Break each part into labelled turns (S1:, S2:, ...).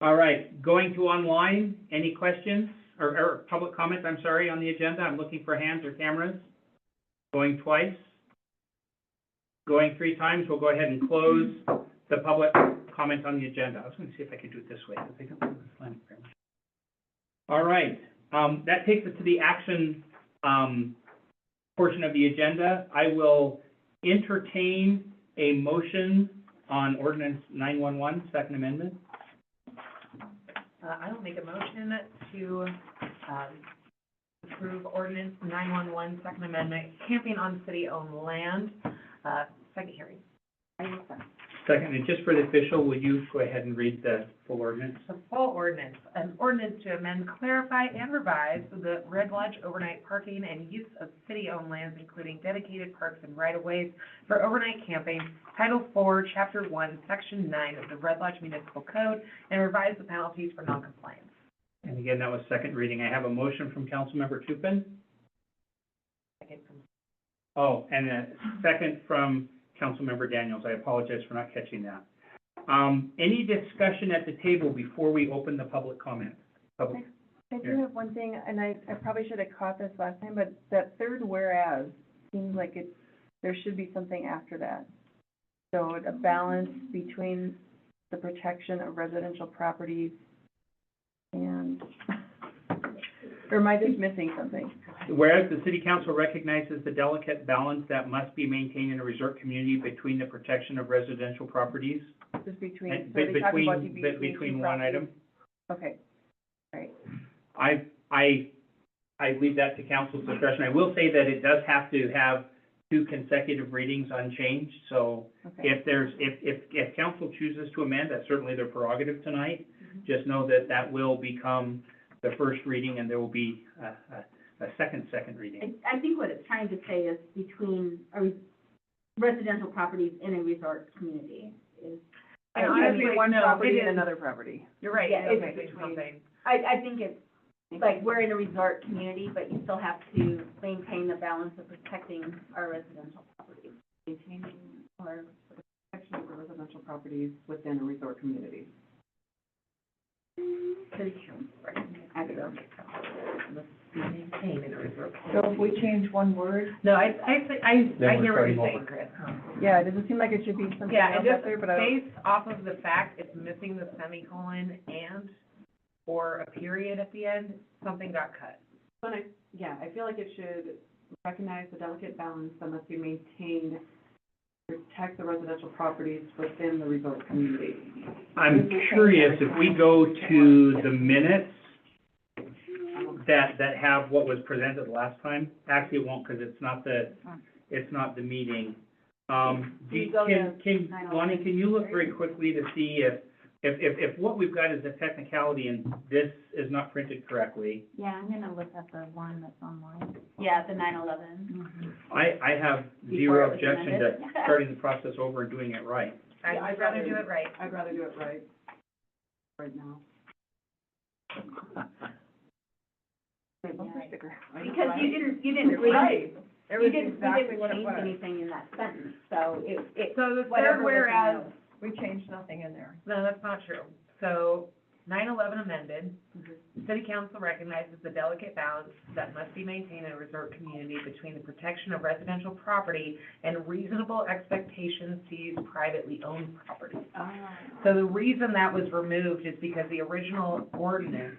S1: All right, going to online, any questions or, or public comments, I'm sorry, on the agenda? I'm looking for hands or cameras. Going twice. Going three times, we'll go ahead and close the public comment on the agenda. I was gonna see if I could do it this way, because I don't have this line very much. All right, um, that takes us to the action, um, portion of the agenda. I will entertain a motion on ordinance nine-one-one, Second Amendment.
S2: Uh, I will make a motion to, um, approve ordinance nine-one-one, Second Amendment, camping on city-owned land, uh, second hearing. I will second.
S1: Second, and just for the official, will you go ahead and read the full ordinance?
S2: The full ordinance, an ordinance to amend, clarify, and revise the Red Lodge overnight parking and use of city-owned lands, including dedicated parks and right-of-ways for overnight camping, Title IV, Chapter One, Section Nine of the Red Lodge Municipal Code, and revise the penalties for noncompliance.
S1: And again, that was second reading. I have a motion from Councilmember Tupin.
S2: Second from
S1: Oh, and a second from Councilmember Daniels. I apologize for not catching that. Um, any discussion at the table before we open the public comment? Public,
S3: I do
S1: Yeah.
S3: have one thing, and I, I probably should have caught this last time, but that third whereas seems like it, there should be something after that. So a balance between the protection of residential properties and, or am I just missing something?
S1: whereas the city council recognizes the delicate balance that must be maintained in a resort community between the protection of residential properties.
S3: Just between,
S1: And
S3: so they
S1: be-
S3: talk about
S1: between- be-
S3: the between two
S1: between one
S3: properties.
S1: item.
S3: Okay,
S1: I, I, I leave that to council's discretion. I will say that it does have to have two consecutive readings unchanged, so
S3: okay.
S1: if there's, if, if, if council chooses to amend, that's certainly their prerogative tonight. Just know that that will become the first reading, and there will be a, a, a second, second reading.
S4: I, I think what it's trying to say is between a re- residential properties in a resort community is,
S2: And
S3: It could be
S2: honestly,
S3: one
S2: no, it
S3: property and
S2: is-
S3: another property.
S2: You're right,
S4: Yeah,
S2: it's
S4: it's
S2: between
S4: between-
S2: something.
S4: I, I think it's, like, we're in a resort community, but you still have to maintain the balance of protecting our residential properties.
S3: Maintaining or protection of residential properties within a resort community.
S2: Maintain in a resort.
S3: So if we change one word,
S2: No, I, I, thi- I,
S1: we're
S2: I hear what
S1: starting
S2: you're saying,
S1: over.
S2: Chris.
S3: Yeah, it doesn't seem like it should be something
S2: Yeah, and
S3: else out
S2: just
S3: there, but Oh, I don't.
S2: based off of the fact it's missing the semicolon and, or a period at the end, something got cut.
S3: Yeah, I feel like it should recognize the delicate balance that must be maintained, protect the residential properties within the resort community.
S1: I'm curious if we go to the minutes that, that have what was presented last time. Actually, it won't, because it's not the, it's not the meeting. Um, do you-
S4: Can we go
S1: can, can,
S4: nine oh
S1: Lonnie,
S4: one?
S1: can you look very quickly to see if, if, if, if what we've got is a technicality and this is not printed correctly?
S4: Yeah, I'm gonna look up the one that's online. Yeah, the nine eleven.
S3: Mm-hmm.
S1: I, I have
S4: Before it
S1: zero
S4: was
S1: objection to
S4: amended.
S1: starting the process over and doing it right.
S2: I'd
S3: Yeah, I'd
S2: rather
S3: rather-
S2: do it right.
S3: I'd rather do it right, right now. Wait, what's the sticker?
S4: Because you didn't, you didn't read,
S3: Right. It
S4: you
S3: was
S4: didn't, you
S3: exactly
S4: didn't
S3: what it
S4: change
S3: was.
S4: anything in that sentence, so it, it,
S2: So the third
S4: whatever was in
S2: whereas,
S4: those.
S3: We changed nothing in there.
S2: no, that's not true. So nine eleven amended,
S3: Mhm.
S2: City council recognizes the delicate balance that must be maintained in a resort community between the protection of residential property and reasonable expectations to use privately owned property. So the reason that was removed is because the original ordinance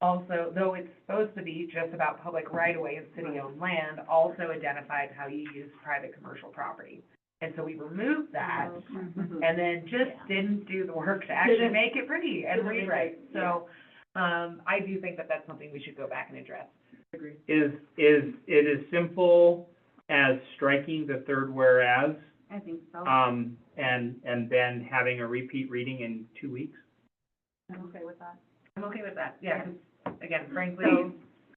S2: also, though it's supposed to be just about public right-of-way and city-owned land, also identified how you use private commercial property. And so we removed that
S4: Oh.
S3: Mm-hmm.
S2: and then just
S4: Mm-hmm. Yeah.
S2: didn't do the work to actually
S4: Didn't-
S2: make it pretty and
S4: didn't
S2: rewrite.
S4: rewrite,
S2: So, um, I do think that that's something we should go back and address.
S1: Is, is, it is simple as striking the third whereas,
S4: I think so.
S1: um, and, and then having a repeat reading in two weeks?
S4: I'm okay with that.
S2: I'm okay with that, yeah, 'cause, again, frankly,
S4: So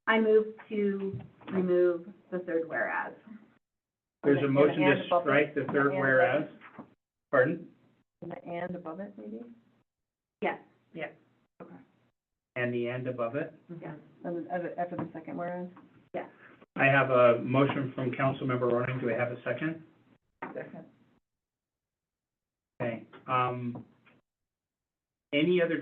S4: I move to remove the third whereas.
S1: There's a
S3: Okay.
S1: motion to
S3: And above it.
S1: strike the third
S3: And
S1: whereas. Pardon?
S3: The and above it, maybe?
S4: Yes.
S1: And the end above it.
S3: And then uh, after the second whereas?
S1: I have a motion from Councilmember Ronan. Do I have a second? Okay. Um, any other